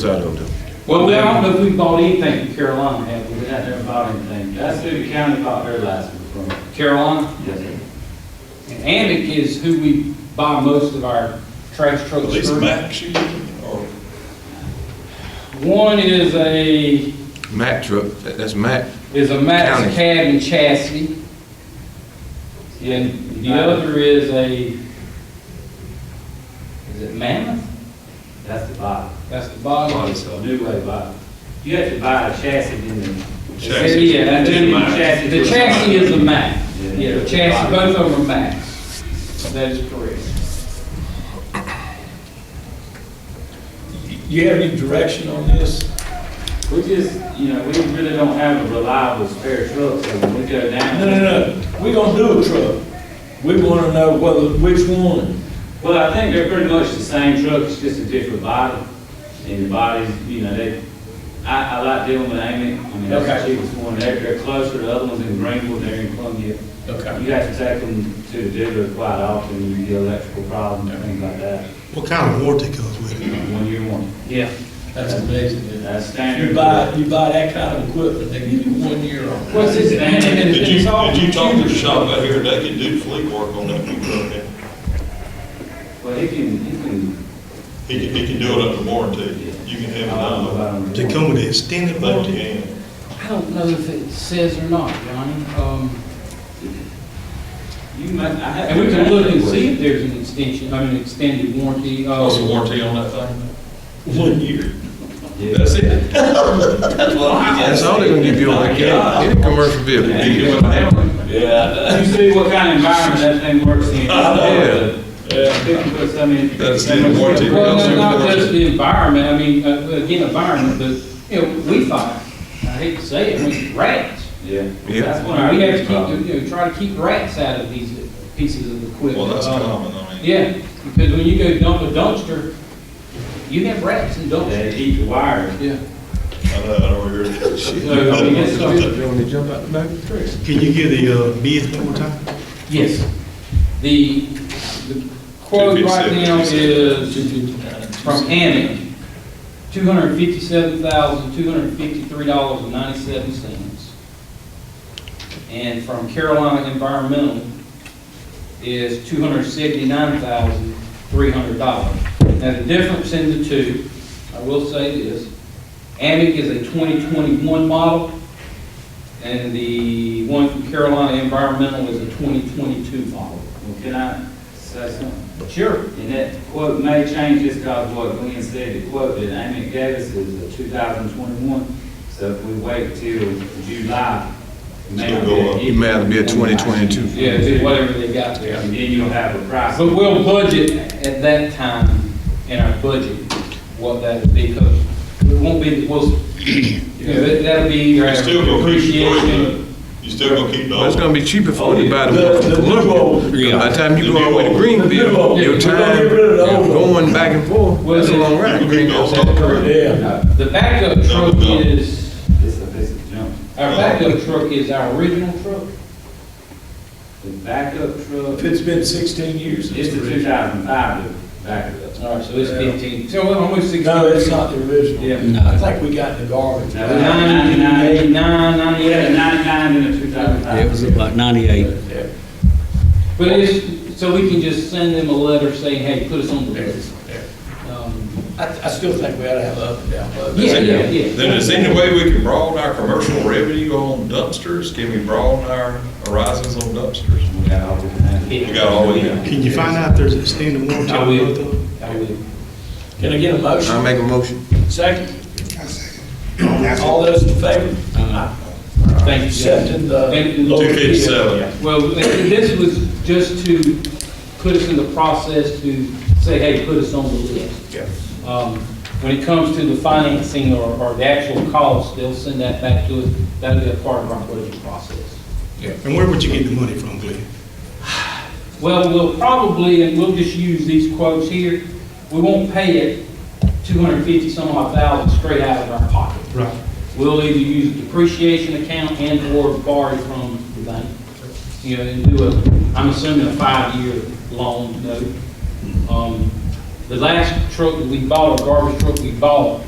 So I don't know. Well, we don't know if we bought anything from Carolina, have we? We have never bought anything. That's who the county bought their license from. Carolina? Yes, sir. And Amic is who we buy most of our trash At trucks least from. Max you can, or One is a, Mack truck, that- that's Mack. is a Max County. cab and chassis. And the other is a, is it Mammoth? That's the bottom. That's the bottom. It's a new way bottom. You have to buy a chassis in the. Chassis. uh, Yeah, that's Then it. Max. Chassis The is a chassis Max. is a Mack. Yeah. Yeah, the chassis, both of them are Macks. That is correct. you have any direction on this? We just, you know, we really don't have a reliable spare truck, so when we go down. No, no, no, we gonna do a truck. We wanna know whether, which one. Well, I think they're pretty much the same truck, it's just a different body. And the bodies, you know, they, I, I like dealing with Amy, I mean, that's the Okay. cheapest one. They're, they're closer, the other one's in Greenville, they're in Columbia. Okay. You have to take them to the dealer quite often, you get electrical problems and things like that. What kind of warranty comes with it? One year one. Yeah. That's amazing. isn't it? That's standard. You buy, you buy that kind of equipment, they give you one year on it. What's his name? And Did it's- you, it's all did you talk to the computer. shop out here, they can do fleet work on that new truck, and Well, he can, he can. he can, he can do it under warranty, you can have it done, About Does it come with an extended but you warranty? can. I don't know if it says or not, Johnny. Um, You might, I have. and we can look and see if there's an extension, I mean, extended warranty. uh, Oh, warranty on that thing? One year. Yeah. That's it. That's what I'm That's all they're gonna give you on that cab, any commercial vehicle. Yeah, you can look down. Yeah, You see what kind of environment that thing works in. Yeah. yeah. Fifty foot, I mean. That's the warranty. Well, no, not warranty. just the environment, I mean, uh, again, environment, but, you know, we find, I hate to say it, we rats. Yeah. Yeah. That's We one of have our to biggest keep, problems. you know, try to keep rats out of these pieces of equipment. Well, that's Um, common, I mean. Yeah, because when you go dump a dumpster, you have rats in dumpsters. They eat the wires. Yeah. I know, I know where you're at. So, I mean, it's something. When they jump out the back of the truck. Can you give the uh, bids one more time? Yes. The, the quote right 257, now is from Amic, two hundred and fifty-seven thousand, two hundred and fifty-three dollars and ninety-seven cents. And from Carolina Environmental is two hundred and seventy-nine thousand, three hundred dollars. Now, the difference in the two, I will say this, Amic is a twenty-twenty-one model, and the one from Carolina Environmental is a 2022 model. Well, can I say something? Sure. And that quote may change just because what Glenn said, the quote that Amy gave us is a two thousand twenty-one. So if we wait till July, it may not It'll go up. be. It may have to be a 2022. Yeah, it's whatever they got there. And then you'll have a price. But we'll budget at that time in our budget what that would be, 'cause it won't be, we'll, you know, that- that'll be either You still our gonna keep the depreciation. equipment, you still gonna keep the Well, old it's gonna one. be cheaper for you to buy the The- one from the new Columbia. old. Because By the time you go all the way to The new old. Greenville, We're your gonna time, get rid of the old one. going back and forth, Well, that's a it's- long ride. You can keep the old one. Yeah. Uh, The backup truck is, It's a, it's a jump. our backup truck is our original truck. The backup truck, It's been sixteen years. since it's the original. two thousand five backup. All right, so it's 15, so we're almost 16. No, it's not the original. Yeah. I think we got the garbage. No. Ninety-nine, We had a ninety-eight. ninety-nine and a two thousand It was five. about 98. But it's, so we can just send them a letter saying, hey, put us on the list. Um, I, I still think we ought to have up and down vote. Yeah, yeah, yeah. Then is there any way we can broaden our commercial revenue on dumpsters? Can we broaden our horizons on dumpsters? We got all we had. We got all we got. Can you find out if there's an extended warranty? I on both of will, them? I will. Can I get a I Um, motion? make a motion. Second? All those in favor? Thank you. Jeff. Accepting the. Thank you. Two fifty-seven. Well, this was just to put us in the process to say, hey, put us on the list. Yeah. Um, When it comes to the financing or, or the actual cost, they'll send that back to us. That'll be a part of our budget process. And where would you get the money from, Glenn? Well, we'll probably, and we'll just use these quotes here, we won't pay it two hundred and fifty some odd thousand straight out of our pocket. Right. We'll either use a depreciation account and or borrow from the bank. You know, and do a, I'm assuming a five-year loan note. Um, The last truck that we bought, a garbage truck we bought,